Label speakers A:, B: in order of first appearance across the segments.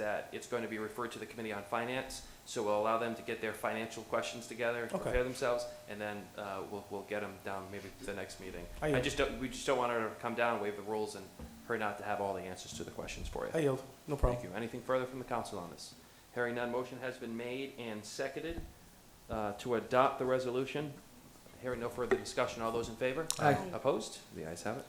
A: that it's going to be referred to the Committee on Finance, so we'll allow them to get their financial questions together, and
B: Okay.
A: prepare themselves, and then uh, we'll, we'll get them down maybe to the next meeting.
B: I
A: I
B: yield.
A: just don't, we just don't want her to come down, waive the rules, and her not to have all the answers to the questions for you.
B: I yield, no
A: Thank
B: problem.
A: you. Anything further from the council on this? Hearing none, motion has been made and seconded uh, to adopt the resolution. Hearing no further discussion, all those in favor?
B: Aye.
A: Opposed? The ayes have it.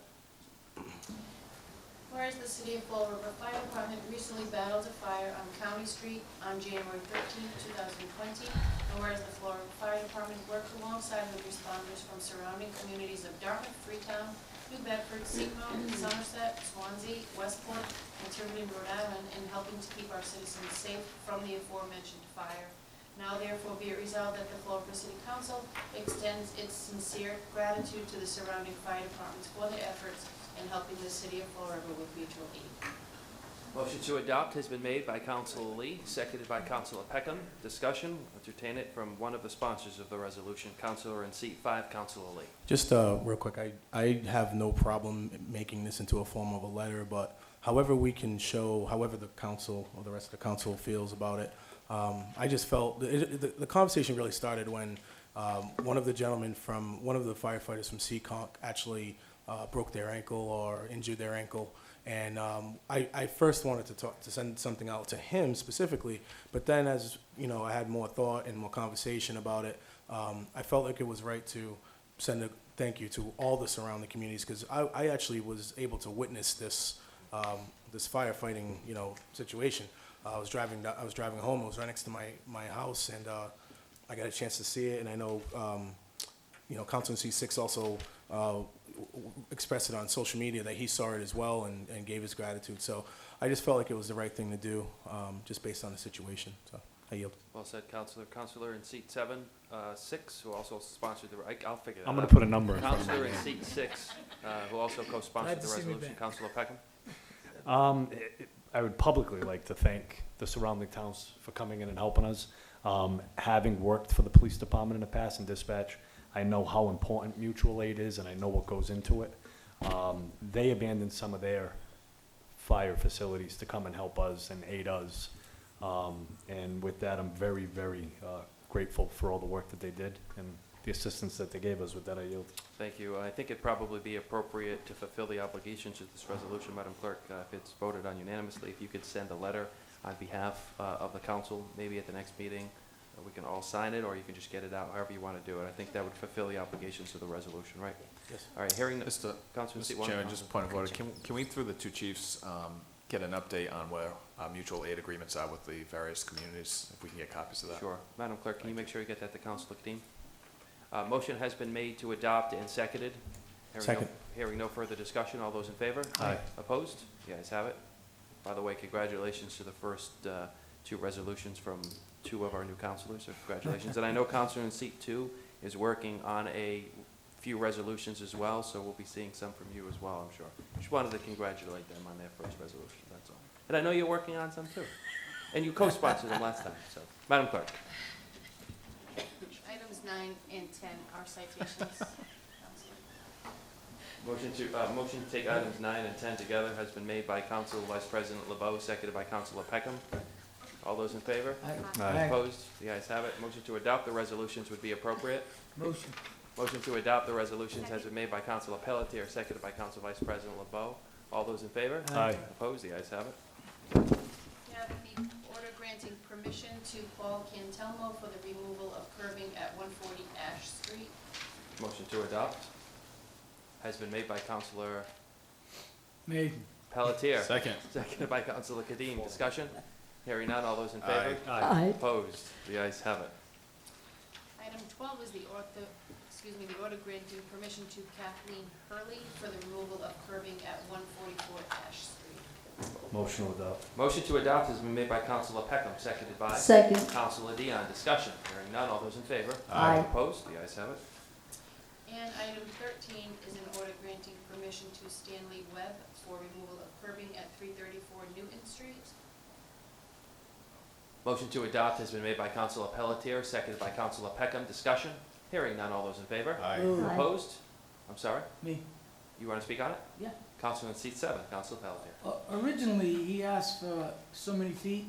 C: Whereas the City of Fall River Fire Department recently battled a fire on County Street on January 13, 2020, and whereas the Fall River Fire Department worked alongside with responders from surrounding communities of Dartmouth, Freetown, New Bedford, Seacom, Somerset, Swansea, Westport, and Tiverton, Rhode Island, in helping to keep our citizens safe from the aforementioned fire. Now therefore be it resolved that the Fall River City Council extends its sincere gratitude to the surrounding fire departments for their efforts in helping the city of Fall River with mutual aid.
A: Motion to adopt has been made by Council Lee, seconded by Council Peckham. Discussion, entertain it from one of the sponsors of the resolution, Councilor in seat five, Councilor Lee.
B: Just uh, real quick, I, I have no problem making this into a form of a letter, but however we can show, however the council or the rest of the council feels about it, um, I just felt, it- it- the conversation really started when um, one of the gentlemen from, one of the firefighters from Seekonk actually uh, broke their ankle or injured their ankle. And um, I, I first wanted to talk, to send something out to him specifically, but then as, you know, I had more thought and more conversation about it, um, I felt like it was right to send a thank you to all the surrounding communities because I, I actually was able to witness this um, this firefighting you know situation. I was driving I was driving home. It was right next to my my house, and uh, I got a chance to see it. And I know um, you know Council C six also. Uh, w- w- expressed it on social media that he saw it as well and, and gave his gratitude. So I just felt like it was the right thing to do, um, just based on the situation. So I yield.
A: Well said, Councilor. Councilor in seat seven, uh, six, who also sponsored the, I- I'll figure that out.
D: I'm gonna put a number in front of
A: Counselor in seat six, uh, who also co-sponsored the
E: Glad to see me
A: resolution,
E: back.
A: Counselor Peckham.
D: it. Um, it- it- I would publicly like to thank the surrounding towns for coming in and helping us. Um, having worked for the police department in the past and dispatch, I know how important mutual aid is and I know what goes into it. Um, they abandoned some of their fire facilities to come and help us and aid us. Um, and with that, I'm very, very, uh, grateful for all the work that they did and the assistance that they gave us with that I yield.
A: Thank you. I think it'd probably be appropriate to fulfill the obligations of this resolution, Madam Clerk, uh, if it's voted on unanimously, if you could send a letter on behalf uh, of the council, maybe at the next meeting, uh, we can all sign it, or you can just get it out, however you want to do it. I think that would fulfill the obligations of the resolution, right?
B: Yes.
A: All right, hearing, the-
F: Mr.
A: Councilman seat
F: Mr.
A: one. Uh,
F: Chairman, just a point of order.
A: Councilman-
F: Can, can we, through the two chiefs, um, get an update on where our mutual aid agreements are with the various communities? If we can get copies of that?
A: Sure. Madam Clerk, can you make sure you get that to Councilor Kadeem? Uh, Motion has been made to adopt and seconded. Hearing no-
B: Second.
A: Hearing no further discussion, all those in favor?
D: Aye.
A: Opposed? The ayes have it. By the way, congratulations to the first uh, two resolutions from two of our new councilors, so congratulations. And I know Counselor in seat two is working on a few resolutions as well, so we'll be seeing some from you as well, I'm sure. Just wanted to congratulate them on their first resolution, that's all. And I know you're working on some too, and you co-sponsored them last time, so. Madam Clerk?
C: Items nine and 10 are citations.
A: Motion to, uh, motion to take items nine and ten together has been made by Council Vice President LeBeau, seconded by Councilor Peckham. All those in favor?
D: Aye.
A: Opposed? The ayes have it. Motion to adopt the resolutions would be appropriate.
E: Motion.
A: Motion to adopt the resolutions has been made by Councilor Pelletier, seconded by Council Vice President LeBeau. All those in favor?
D: Aye.
A: Opposed? The ayes have it.
C: We have the order granting permission to Paul Cantelmo for the removal of curbing at 140 Ash Street.
A: Motion to adopt has been made by Councilor
E: Maiden.
A: Pelletier,
F: Second.
A: seconded by Councilor Kadim. Discussion? Hearing none. All those in
F: Aye.
A: favor?
D: Aye.
A: Opposed? The ayes have it.
C: Item 12 is the ortho, excuse me, the order granting permission to Kathleen Hurley for the removal of curbing at 144 Ash Street.
D: Motion to adopt.
A: Motion to adopt has been made by Councilor Peckham, seconded by
G: Second.
A: Councilor Dion. Discussion, hearing none, all those in favor?
G: Aye.
A: Opposed, the ayes have it.
C: And item 13 is an order granting permission to Stanley Webb for removal of curbing at 334 Newton Street.
A: Motion to adopt has been made by Councilor Pelletier, seconded by Councilor Peckham. Discussion, hearing none, all those in favor?
F: Aye.
G: Aye.
A: Opposed? I'm sorry,
E: Me.
A: you want to speak on it?
E: Yeah.
A: Counselor in seat seven, Counselor Pelletier.
E: Uh, O- Originally, he asked for so many feet,